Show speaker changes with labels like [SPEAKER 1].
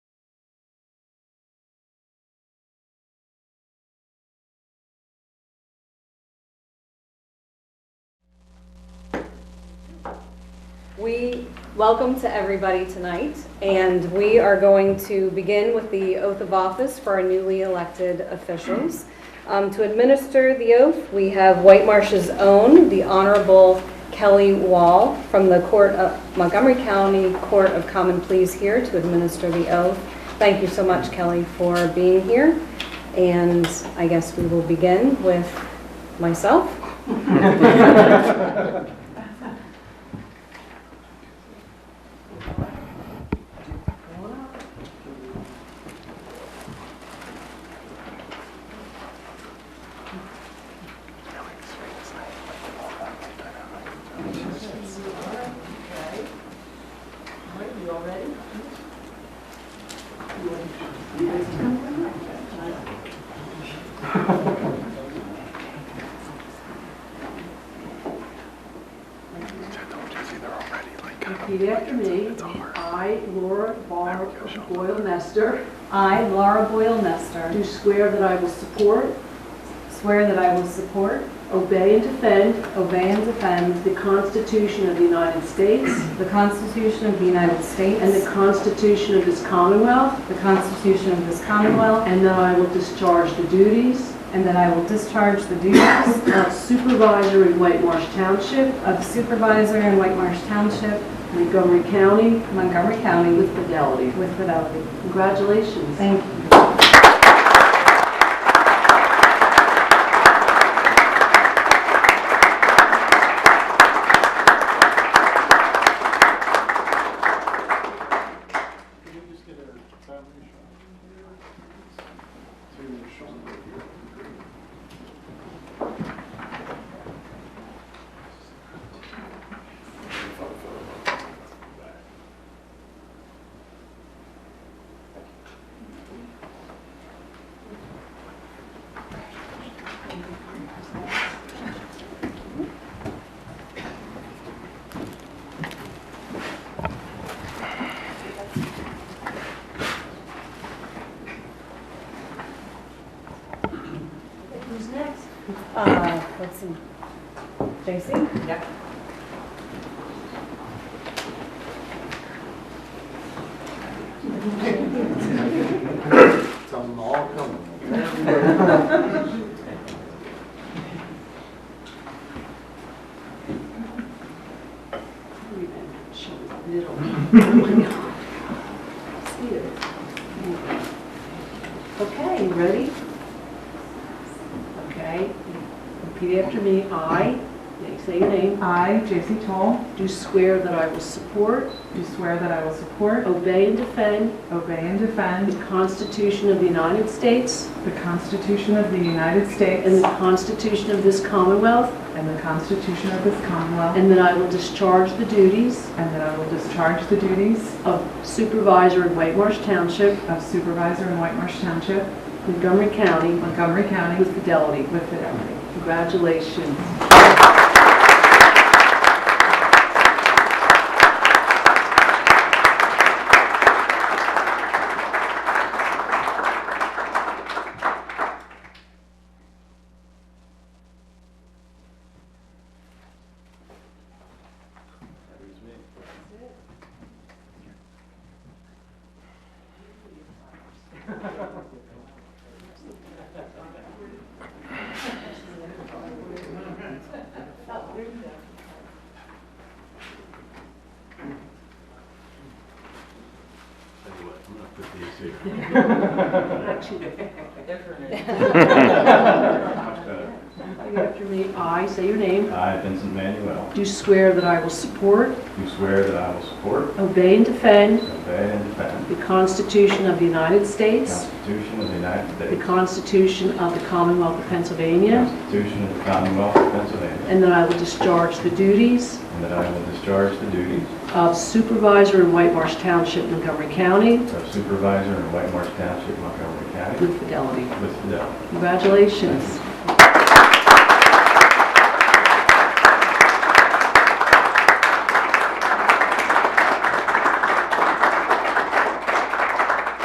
[SPEAKER 1] We welcome to everybody tonight, and we are going to begin with the oath of office for our newly elected officials. Um, To administer the oath, we have White Marsh's own, the Honorable Kelly Wall from the Court of Montgomery County Court of Common Pleas here to administer the oath. Thank you so much, Kelly, for being here. And I guess we will begin with myself.
[SPEAKER 2] Okay. All right, you all ready? Repeat after me. I, Laura Bar Boyle Nester,
[SPEAKER 1] I, Laura Boyle Nestor.
[SPEAKER 2] do swear that I will support,
[SPEAKER 1] Swear that I will support,
[SPEAKER 2] obey, and defend
[SPEAKER 1] obey, and defend
[SPEAKER 2] the Constitution of the United States
[SPEAKER 1] the Constitution of the United States
[SPEAKER 2] and the Constitution of this Commonwealth,
[SPEAKER 1] the Constitution of this Commonwealth,
[SPEAKER 2] and that I will discharge the duties
[SPEAKER 1] and that I will discharge the duties
[SPEAKER 2] of supervisor in White Marsh Township,
[SPEAKER 1] of supervisor in White Marsh Township,
[SPEAKER 2] Montgomery County,
[SPEAKER 1] Montgomery County,
[SPEAKER 2] with fidelity.
[SPEAKER 1] with fidelity.
[SPEAKER 2] Congratulations.
[SPEAKER 1] Thank you.
[SPEAKER 3] Can we just get a family shot? To Sean right here.
[SPEAKER 2] Who's next?
[SPEAKER 1] Uh, Let's see. J.C.?
[SPEAKER 2] Yeah.
[SPEAKER 3] Tell them all coming.
[SPEAKER 2] Middle. See you. Okay, you ready? Okay, repeat after me. I, now you say your name,
[SPEAKER 4] I, J.C. Toll,
[SPEAKER 2] do swear that I will support,
[SPEAKER 4] do swear that I will support,
[SPEAKER 2] obey, and defend
[SPEAKER 4] obey, and
[SPEAKER 2] the
[SPEAKER 4] defend
[SPEAKER 2] Constitution of the United States
[SPEAKER 4] the Constitution of the United States
[SPEAKER 2] and the Constitution of this Commonwealth,
[SPEAKER 4] and the Constitution of this Commonwealth,
[SPEAKER 2] and that I will discharge the duties
[SPEAKER 4] and that I will discharge the duties
[SPEAKER 2] of supervisor in White Marsh Township,
[SPEAKER 4] of supervisor in White Marsh Township,
[SPEAKER 2] Montgomery County,
[SPEAKER 4] Montgomery County,
[SPEAKER 2] with fidelity.
[SPEAKER 4] with fidelity.
[SPEAKER 2] Congratulations.
[SPEAKER 5] Tell you what, I'm gonna put these here. Much better.
[SPEAKER 2] Repeat After me, I say your name,
[SPEAKER 5] I, Vincent Manuel,
[SPEAKER 2] do swear that I will support,
[SPEAKER 5] do swear that I will support,
[SPEAKER 2] obey, and defend
[SPEAKER 5] obey, and defend
[SPEAKER 2] the Constitution of the United
[SPEAKER 5] the
[SPEAKER 2] States,
[SPEAKER 5] Constitution of the United
[SPEAKER 2] the
[SPEAKER 5] States,
[SPEAKER 2] Constitution of the Commonwealth of
[SPEAKER 5] the
[SPEAKER 2] Pennsylvania,
[SPEAKER 5] Constitution of the Commonwealth of Pennsylvania,
[SPEAKER 2] and that I will discharge the duties
[SPEAKER 5] and that I will discharge the duties
[SPEAKER 2] of supervisor in White Marsh Township, Montgomery County,
[SPEAKER 5] of supervisor in White Marsh Township, Montgomery County,
[SPEAKER 2] with fidelity.
[SPEAKER 5] with fidelity.
[SPEAKER 2] Congratulations.